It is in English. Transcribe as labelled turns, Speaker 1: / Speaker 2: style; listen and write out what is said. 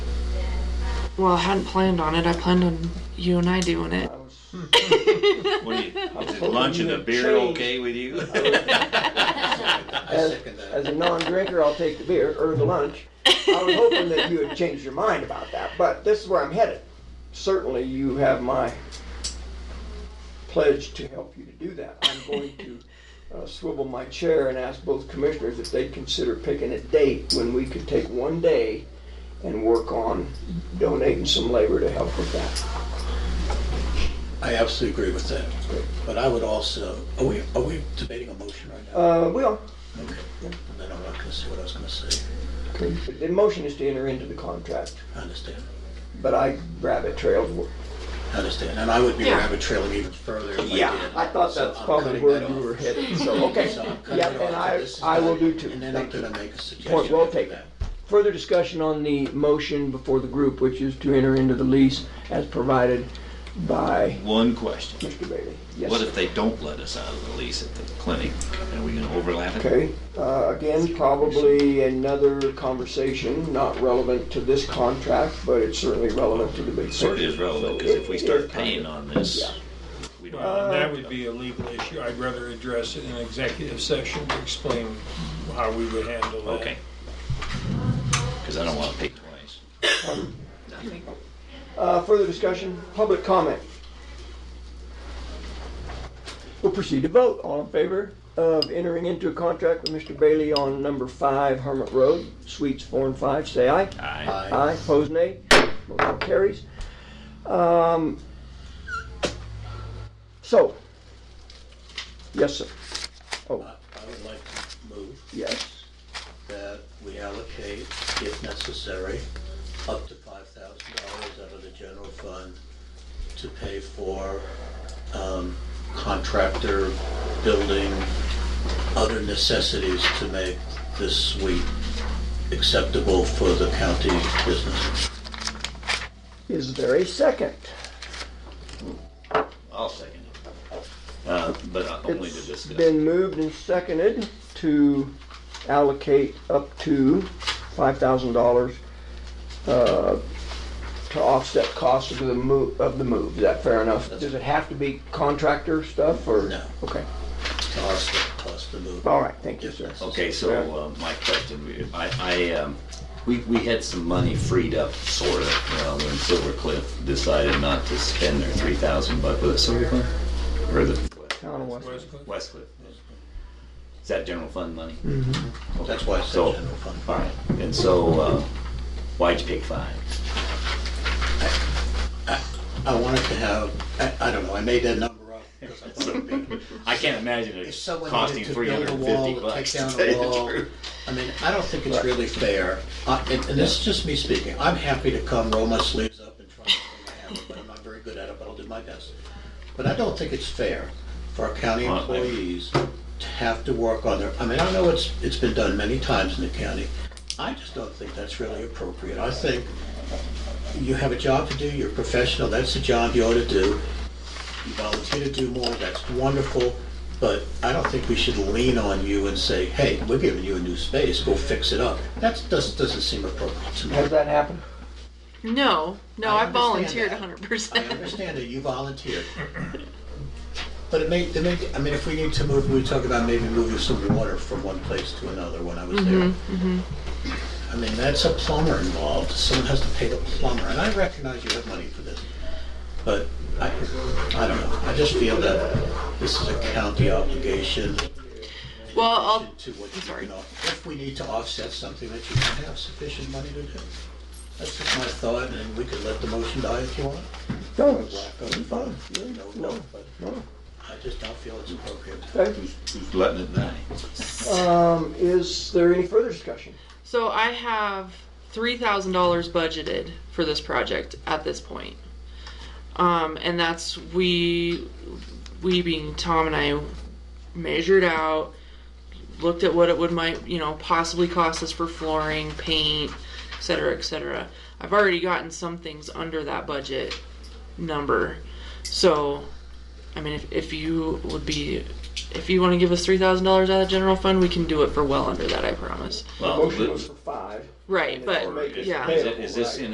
Speaker 1: Well, I hadn't planned on it. I planned on you and I doing it.
Speaker 2: I was,
Speaker 3: What do you, is
Speaker 2: hoping
Speaker 3: lunch
Speaker 2: you
Speaker 3: and a
Speaker 2: had
Speaker 3: beer
Speaker 2: changed.
Speaker 3: okay with you?
Speaker 2: as, as a non-drinker, I'll take the beer or the lunch. I was hoping that you had changed your mind about that, but this is where I'm headed. Certainly, you have my pledge to help you to do that. I'm going to uh, swivel my chair and ask both commissioners if they'd consider picking a date when we could take one day and work on donating some labor to help with that.
Speaker 4: I absolutely agree with that. But I would also, are we, are we debating a motion right now?
Speaker 2: Uh, well,
Speaker 4: Okay. And then I'm not gonna say what I was gonna say.
Speaker 2: the motion is to enter into the contract,
Speaker 4: I understand.
Speaker 2: but I rabbit trailed
Speaker 4: I understand. And I would be
Speaker 1: Yeah.
Speaker 4: rabbit trailing even further if I did.
Speaker 2: Yeah, I thought
Speaker 4: So
Speaker 2: that's
Speaker 4: I'm
Speaker 2: probably
Speaker 4: cutting
Speaker 2: where
Speaker 4: that
Speaker 2: you
Speaker 4: off.
Speaker 2: were headed, so, okay.
Speaker 4: So I'm cutting
Speaker 2: Yeah,
Speaker 4: it off,
Speaker 2: and
Speaker 4: so
Speaker 2: I,
Speaker 4: this is
Speaker 2: I will
Speaker 4: done.
Speaker 2: do too.
Speaker 4: And then I'm
Speaker 2: Thank you.
Speaker 4: gonna make a suggestion.
Speaker 2: Point well
Speaker 4: after
Speaker 2: taken.
Speaker 4: that.
Speaker 2: Further discussion on the motion before the group, which is to enter into the lease as provided by
Speaker 3: One question.
Speaker 2: Mr. Bailey. Yes,
Speaker 3: What
Speaker 2: sir.
Speaker 3: if they don't let us out of the lease at the clinic? Are we gonna overlap it?
Speaker 2: Okay, uh, again, probably another conversation, not relevant to this contract, but it's certainly relevant to the big picture.
Speaker 3: Sort of is relevant,
Speaker 2: So
Speaker 3: because if we
Speaker 2: it-
Speaker 3: start
Speaker 2: it-
Speaker 3: paying on this, we don't.
Speaker 5: Well, Um, That would be a legal issue. I'd rather address it in executive session to explain how we would handle that.
Speaker 3: Okay. Because I don't want to pay twice. Nothing.
Speaker 2: Uh, further discussion, public comment. We'll proceed to vote. All in favor of entering into a contract with Mr. Bailey on number five Hermit Road, Suites four and five, say aye.
Speaker 3: Aye.
Speaker 4: Aye.
Speaker 2: Aye, opposed nay. Motion carries. Um, so, yes, sir,
Speaker 4: I I would like to move
Speaker 2: yes.
Speaker 4: that we allocate, if necessary, up to five thousand dollars out of the general fund to pay for um, contractor, building, other necessities to make this suite acceptable for the county business.
Speaker 2: Is there a second?
Speaker 3: I'll second it. Uh, But I only to
Speaker 2: It's
Speaker 3: discuss.
Speaker 2: been moved and seconded to allocate up to five thousand dollars uh, to offset costs of the move, of the move. Is that fair enough? Does it have to be contractor stuff or?
Speaker 4: No.
Speaker 2: Okay,
Speaker 4: To offset cost of moving.
Speaker 2: all right, thank you, sir.
Speaker 3: Okay, so uh, my question, I, I, um, we, we had some money freed up, sort of, uh, when Silver Cliff decided not to spend their three thousand bucks, was it Silver Cliff? Or the
Speaker 2: Town of West-
Speaker 5: Where's Cliff?
Speaker 3: West Cliff? Is that general fund money? Okay,
Speaker 4: Mm-hmm. That's why I said
Speaker 3: so-
Speaker 4: general fund.
Speaker 3: All right, and so, uh, why'd you pick five?
Speaker 4: I wanted to have, I, I don't know, I made that number up because I thought it'd be
Speaker 3: I can't imagine
Speaker 4: If
Speaker 3: it
Speaker 4: someone
Speaker 3: costing
Speaker 4: needed to
Speaker 3: three
Speaker 4: build
Speaker 3: hundred
Speaker 4: a
Speaker 3: and
Speaker 4: wall,
Speaker 3: fifty
Speaker 4: to take
Speaker 3: bucks to
Speaker 4: down
Speaker 3: tell
Speaker 4: a
Speaker 3: you the
Speaker 4: wall,
Speaker 3: truth.
Speaker 4: I mean, I don't think it's really fair, I- and and this is just me speaking, I'm happy to come roll my sleeves up and try to make it happen, but I'm not very good at it, but I'll do my best. But I don't think it's fair for our county
Speaker 3: Well, I-
Speaker 4: employees to have to work on their, I mean, I know it's, it's been done many times in the county, I just don't think that's really appropriate. I think you have a job to do, you're a professional, that's the job you ought to do. You volunteer to do more, that's wonderful, but I don't think we should lean on you and say, hey, we're giving you a new space, go fix it up. That doesn't, doesn't seem appropriate to me.
Speaker 2: Has that happened?
Speaker 1: No, no,
Speaker 4: I
Speaker 1: I,
Speaker 4: understand
Speaker 1: volunteered
Speaker 4: that.
Speaker 1: 100%.
Speaker 4: I understand that you volunteered. But it may, it may, I mean, if we need to move, we talk about maybe moving some water from one place to another when I was there.
Speaker 1: Mm-hmm,
Speaker 4: I mean, that's a plumber involved, someone has to pay the plumber, and I recognize you have money for this. But I, I don't know, I just feel that this is a county obligation
Speaker 1: Well, I'll,
Speaker 4: to what
Speaker 1: Oh, I'm
Speaker 4: you
Speaker 1: sorry.
Speaker 4: can, off- if we need to offset something that you don't have sufficient money to do. That's just my thought, and we could let the motion die if you want.
Speaker 2: No,
Speaker 4: Or
Speaker 2: it's-
Speaker 4: black on the phone.
Speaker 2: no,
Speaker 4: No, but
Speaker 2: no.
Speaker 4: I just don't feel it's appropriate.
Speaker 2: Okay.
Speaker 3: Who's letting it die?
Speaker 2: Um, is there any further discussion?
Speaker 1: So I have three thousand dollars budgeted for this project at this point, um, and that's we, we being Tom and I, measured out, looked at what it would might you know possibly cost us for flooring, paint, et cetera, et cetera. I've already gotten some things under that budget number, so, I mean, if, if you would be. If you want to give us three thousand dollars out of the general fund, we can do it for well under that. I promise.
Speaker 2: The
Speaker 3: Well,
Speaker 2: motion
Speaker 3: but-
Speaker 2: was for five.
Speaker 1: Right,
Speaker 2: And it's
Speaker 1: but
Speaker 2: already-
Speaker 1: yeah.
Speaker 3: Is it- is this in